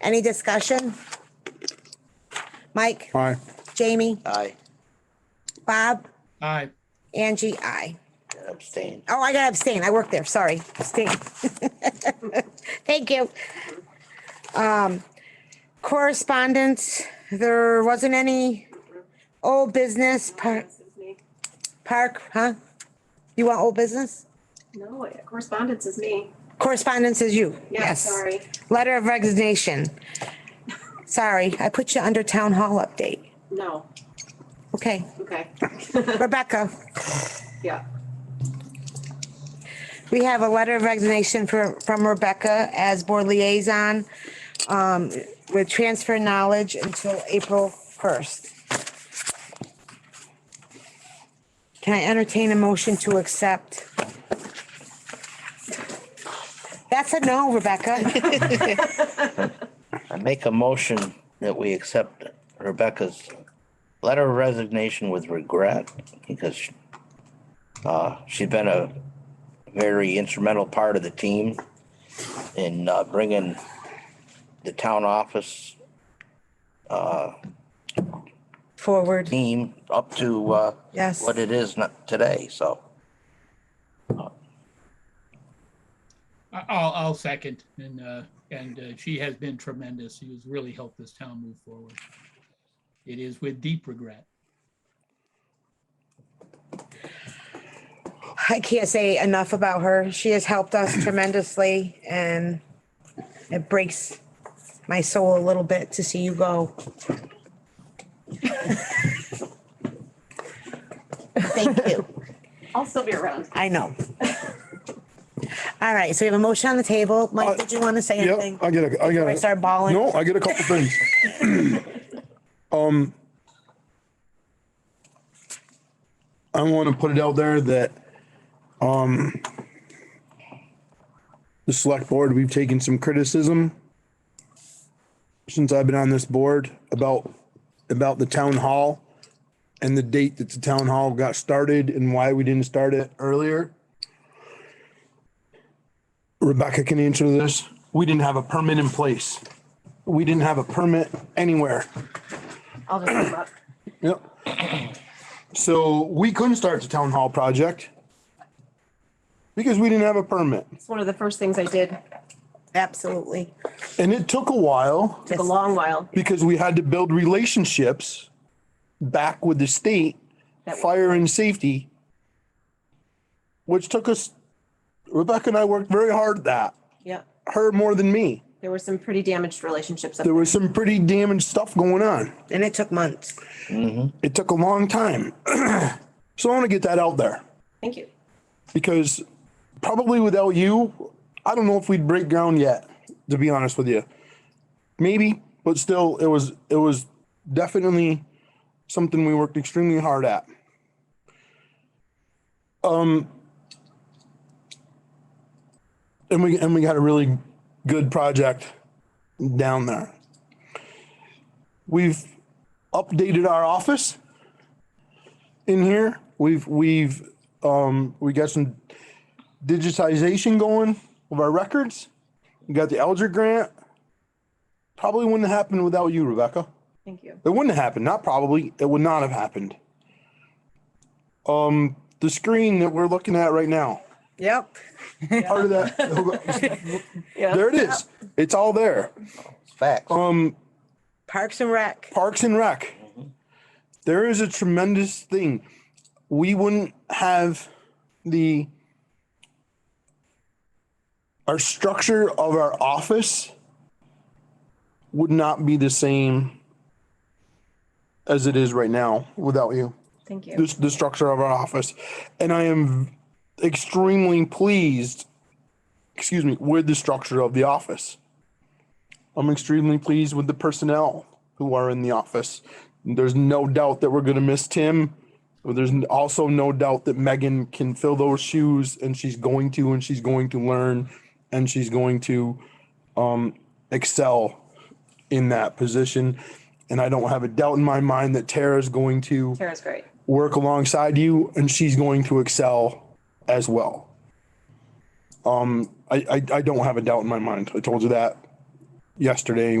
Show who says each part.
Speaker 1: Any discussion? Mike,
Speaker 2: Aye.
Speaker 1: Jamie,
Speaker 3: Aye,
Speaker 1: Bob,
Speaker 4: aye,
Speaker 1: Angie, I.
Speaker 3: and abstain.
Speaker 1: Oh, I gotta abstain. I work there. Sorry. Abstain. Thank you. Um, correspondence, there wasn't any old business park,
Speaker 5: Correspondence's me.
Speaker 1: park, huh? You want old business?
Speaker 5: No, correspondence is me.
Speaker 1: Correspondence is you.
Speaker 5: Yeah,
Speaker 1: Yes.
Speaker 5: sorry.
Speaker 1: Letter of resignation. Sorry, I put you under town hall update.
Speaker 5: No,
Speaker 1: Okay,
Speaker 5: okay.
Speaker 1: Rebecca,
Speaker 5: Yeah,
Speaker 1: we have a letter of resignation for, from Rebecca as board liaison um, with transfer knowledge until April first. Can I entertain a motion to accept? That's a no, Rebecca.
Speaker 3: I make a motion that we accept Rebecca's letter of resignation with regret because uh, she's been a very instrumental part of the team in uh, bringing the town office
Speaker 1: Forward.
Speaker 3: team up to uh,
Speaker 1: Yes.
Speaker 3: what it is not today, so.
Speaker 4: I- I'll, I'll second. And, uh, and uh, she has been tremendous. She has really helped this town move forward. It is with deep regret.
Speaker 1: I can't say enough about her. She has helped us tremendously and it breaks my soul a little bit to see you go. Thank you.
Speaker 5: I'll still be around.
Speaker 1: I know. All right, so we have a motion on the table.
Speaker 2: Uh,
Speaker 1: Mike, did you want to say anything?
Speaker 2: Yep, I get a, I get
Speaker 1: I
Speaker 2: a.
Speaker 1: start bawling?
Speaker 2: No, I get a couple things. Um, I want to put it out there that, um, the select board, we've taken some criticism since I've been on this board about, about the town hall and the date that the town hall got started and why we didn't start it earlier. Rebecca can answer this. We didn't have a permit in place. We didn't have a permit anywhere.
Speaker 5: I'll just come up.
Speaker 2: Yep. So we couldn't start the town hall project because we didn't have a permit.
Speaker 5: It's one of the first things I did.
Speaker 1: Absolutely.
Speaker 2: And it took a while
Speaker 5: Took a long while.
Speaker 2: because we had to build relationships back with the state,
Speaker 5: That we-
Speaker 2: fire and safety, which took us, Rebecca and I worked very hard at that,
Speaker 5: Yeah,
Speaker 2: her more than me.
Speaker 5: there were some pretty damaged relationships. up
Speaker 2: There was some pretty damaged stuff going on.
Speaker 1: And it took months.
Speaker 2: it took a long time. so I want to get that out there
Speaker 5: Thank you.
Speaker 2: because probably without you, I don't know if we'd break ground yet, to be honest with you. Maybe, but still it was it was definitely something we worked extremely hard at. Um and we and we got a really good project down there. We've updated our office in here. We've we've um we got some digitization going of our records. We got the Elder grant. Probably wouldn't have happened without you, Rebecca.
Speaker 5: Thank you.
Speaker 2: It wouldn't have happened. Not probably. It would not have happened. Um, the screen that we're looking at right now,
Speaker 1: Yep.
Speaker 2: part of that,
Speaker 5: Yeah.
Speaker 2: there it is. It's all there.
Speaker 3: It's facts.
Speaker 2: Um,
Speaker 1: Parks and Rec.
Speaker 2: Parks and Rec. There is a tremendous thing. We wouldn't have the our structure of our office would not be the same as it is right now without you
Speaker 5: Thank you.
Speaker 2: the, the structure of our office. And I am extremely pleased, excuse me, with the structure of the office. I'm extremely pleased with the personnel who are in the office. There's no doubt that we're going to miss Tim. But There's also no doubt that Megan can fill those shoes and she's going to, and she's going to learn and she's going to um, excel in that position. And I don't have a doubt in my mind that Tara's going to
Speaker 5: Tara's great.
Speaker 2: work alongside you and she's going to excel as well. Um, I, I, I don't have a doubt in my mind. I told you that yesterday